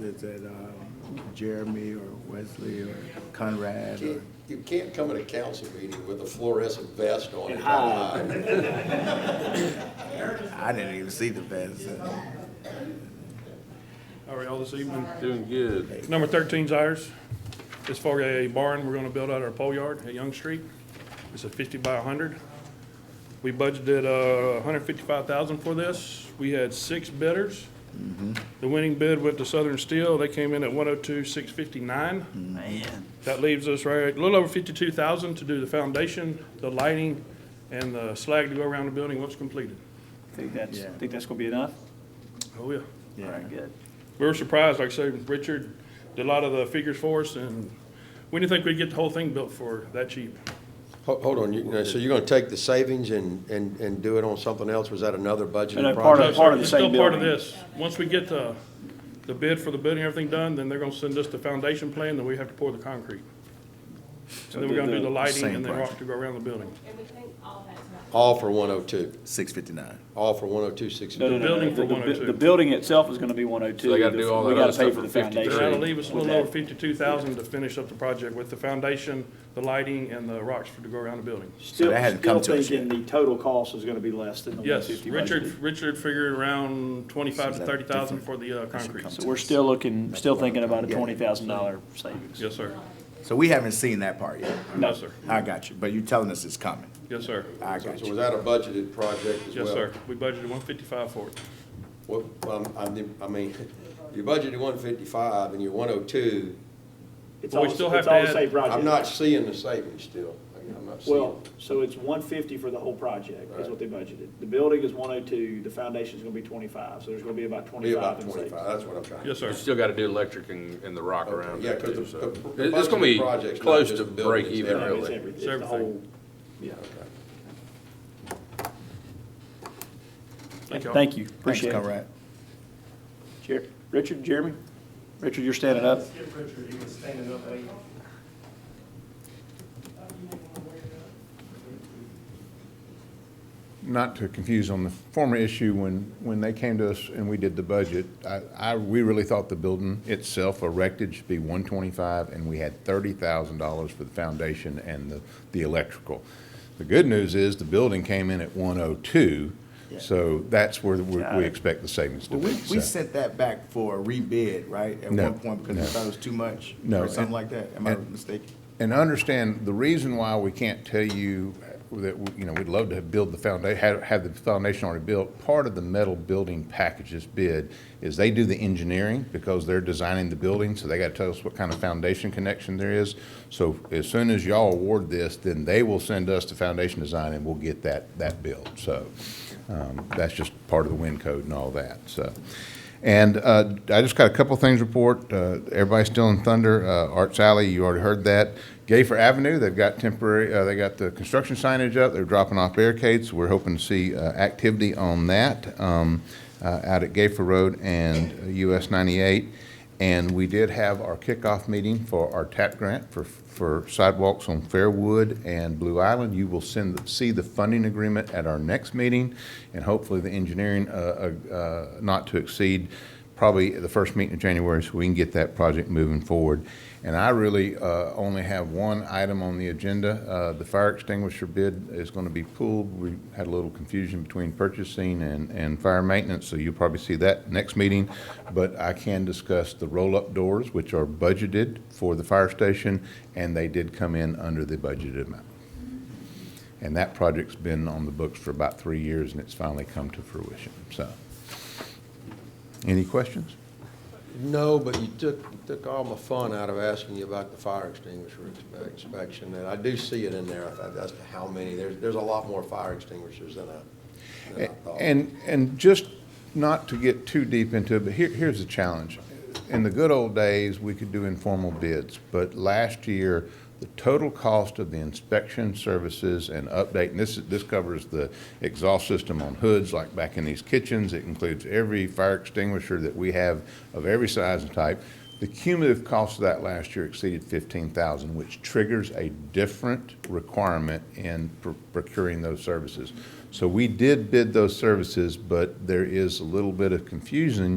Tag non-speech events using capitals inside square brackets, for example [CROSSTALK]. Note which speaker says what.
Speaker 1: kids that um, Jeremy or Wesley or Conrad or,
Speaker 2: Can't- You can't come at a council meeting with a fluorescent vest on.
Speaker 1: And
Speaker 2: and
Speaker 1: hide.
Speaker 2: hide.
Speaker 1: I didn't even see the uh, vets.
Speaker 3: How are y'all this evening?
Speaker 4: Doing good.
Speaker 3: Number 13's ours. It's for a barn we're gonna build out our pole yard at Young Street. It's a fifty by hundred. We budgeted uh hundred fifty-five thousand for this. We had six bidders.
Speaker 4: Mm-hmm.
Speaker 3: The winning bid went to Southern Steel. They came in at one oh two, six fifty-nine.
Speaker 1: Man.
Speaker 3: That leaves us right, a little over fifty-two thousand to do the foundation, the lighting, and the slag to go around the building once completed.
Speaker 5: Think that's,
Speaker 1: Yeah.
Speaker 5: think that's gonna be enough?
Speaker 3: Oh, yeah.
Speaker 5: All
Speaker 1: Yeah.
Speaker 5: right, good.
Speaker 3: We were surprised, like I said, Richard did a lot of the figures for us, and we didn't think we'd get the whole thing built for that cheap.
Speaker 2: Ho- Hold on, you- so you're gonna take the savings and, and, and do it on something else? Was that another
Speaker 5: And
Speaker 2: budgeted
Speaker 5: a part
Speaker 2: project?
Speaker 5: of- the
Speaker 3: It's
Speaker 5: same
Speaker 3: still part of
Speaker 5: building.
Speaker 3: this. Once we get the, the bid for the building, and everything done, then they're gonna send us the foundation plan, then we have to pour the concrete. So then we're gonna do the lighting
Speaker 1: Same
Speaker 3: and then rock
Speaker 1: project.
Speaker 3: to go around the building.
Speaker 6: And we think all that's not.
Speaker 2: All for one oh two,
Speaker 1: Six fifty-nine.
Speaker 2: all for one oh two, six.
Speaker 5: No, no, no, no,
Speaker 3: building
Speaker 5: the-
Speaker 3: for
Speaker 5: the bu-
Speaker 3: 102.
Speaker 5: The building itself is gonna be one oh two.
Speaker 4: So they gotta do all that other stuff for 53.
Speaker 3: That'll leave us a little over fifty-two thousand to finish up the project with the foundation, the lighting, and the rocks to go around the building.
Speaker 5: Still,
Speaker 1: that hadn't come
Speaker 5: still
Speaker 1: to us
Speaker 5: thinking the total cost is gonna be less than the one
Speaker 3: Yes,
Speaker 5: fifty
Speaker 3: Richard, Richard figured around twenty-five to
Speaker 1: that
Speaker 3: thirty thousand
Speaker 1: different?
Speaker 3: for the, uh, concrete.
Speaker 5: So we're still looking, still thinking about a
Speaker 1: Yeah.
Speaker 5: twenty thousand dollar savings.
Speaker 3: Yes, sir.
Speaker 1: So we haven't seen that part yet.
Speaker 5: No.
Speaker 3: Yes, sir.
Speaker 1: I got you, but you're telling us it's coming.
Speaker 3: Yes, sir.
Speaker 1: I
Speaker 2: So
Speaker 1: got
Speaker 2: was
Speaker 1: you.
Speaker 2: that a budgeted project as well?
Speaker 3: Yes, sir. We budgeted one fifty-five for it.
Speaker 2: Well, um, I, did- I mean, [LAUGHS] you budgeted one fifty-five and you're one oh two.
Speaker 5: It's
Speaker 3: Well, we
Speaker 5: all-
Speaker 3: still have
Speaker 5: it's
Speaker 3: to
Speaker 5: all the
Speaker 3: add-
Speaker 5: same project.
Speaker 2: I'm not seeing the savings still. I'm not seeing.
Speaker 5: Well, so it's one fifty for the whole project, is what they budgeted. The building is one oh two, the foundation's gonna be twenty-five, so there's gonna be about
Speaker 2: Be about
Speaker 5: twenty-five in savings.
Speaker 2: twenty-five, that's what I'm trying.
Speaker 3: Yes,
Speaker 4: You
Speaker 3: sir.
Speaker 4: still gotta do electric and, and the rock around
Speaker 2: Yeah,
Speaker 4: it
Speaker 2: 'cause
Speaker 4: too,
Speaker 2: the-
Speaker 4: so.
Speaker 2: the- the
Speaker 4: It- It's gonna be
Speaker 2: budgeted project's not
Speaker 4: close
Speaker 2: just
Speaker 4: to
Speaker 2: the building,
Speaker 4: break
Speaker 2: it's
Speaker 4: even
Speaker 5: No, It's
Speaker 4: really.
Speaker 5: every- it's the
Speaker 3: Everything.
Speaker 5: whole, yeah.
Speaker 3: Thank you.
Speaker 5: Thank you, appreciate
Speaker 1: Thanks,
Speaker 5: it.
Speaker 1: Conrad.
Speaker 5: Jer- Richard, Jeremy? Richard, you're standing up.
Speaker 7: Skip Richard, he was standing up late.
Speaker 8: not to confuse on the former issue, when, when they came to us and we did the budget, I, I, we really thought the building itself erected should be one twenty-five, and we had thirty thousand dollars for the foundation and the, the electrical. The good news is the building came in at one oh two, so that's where we,
Speaker 5: Got
Speaker 8: we
Speaker 5: it.
Speaker 8: expect the savings to
Speaker 1: Well, we,
Speaker 8: be.
Speaker 1: we
Speaker 8: so.
Speaker 1: sent that back for a rebid, right? At
Speaker 8: No,
Speaker 1: one point because we
Speaker 8: no.
Speaker 1: thought it was too much?
Speaker 8: No,
Speaker 1: Or something
Speaker 8: and-
Speaker 1: like that? Am I
Speaker 8: and-
Speaker 1: mistaken?
Speaker 8: And understand, the reason why we can't tell you that, you know, we'd love to build the foundation, have, have the foundation already built, part of the metal building packages bid is they do the engineering because they're designing the building, so they gotta tell us what kind of foundation connection there is. So as soon as y'all award this, then they will send us the foundation design and we'll get that, that built, so. Um, That's just part of the wind code and all that, so. And uh, I just got a couple things to report. Uh, Everybody's still in thunder. Uh, Arts Alley, you already heard that. Gayfer Avenue, they've got temporary, uh, they got the construction signage up. They're dropping off barricades. We're hoping to see uh, activity on that um, uh, out at Gayfer Road and uh, US 98. And we did have our kickoff meeting for our TAP grant for, for sidewalks on Fairwood and Blue Island. You will send, see the funding agreement at our next meeting, and hopefully the engineering, uh, uh, uh, not to exceed probably the first meeting in January, so we can get that project moving forward. And I really uh, only have one item on the agenda. Uh, The fire extinguisher bid is going to be pulled. We had a little confusion between purchasing and, and fire maintenance, so you'll probably see that next meeting. But I can discuss the roll-up doors, which are budgeted for the fire station, and they did come in under the budgeted amount. And that project's been on the books for about three years, and it's finally come to fruition, so. Any questions?
Speaker 2: No, but you took, you took all my fun out of asking you about the fire extinguisher inspe- inspection, and I do see it in there, I thought, as to how many, there's, there's a lot more fire extinguishers than I, than I thought.
Speaker 8: And, and just not to get too deep into it, but here, here's the challenge. In the good old days, we could do informal bids, but last year, the total cost of the inspection services and update, and this, is- this covers the exhaust system on hoods, like back in these kitchens, it includes every fire extinguisher that we have of every size and type. The cumulative cost of that last year exceeded fifteen thousand, which triggers a different requirement in pr- procuring those services. So we did bid those services, but there is a little bit of confusion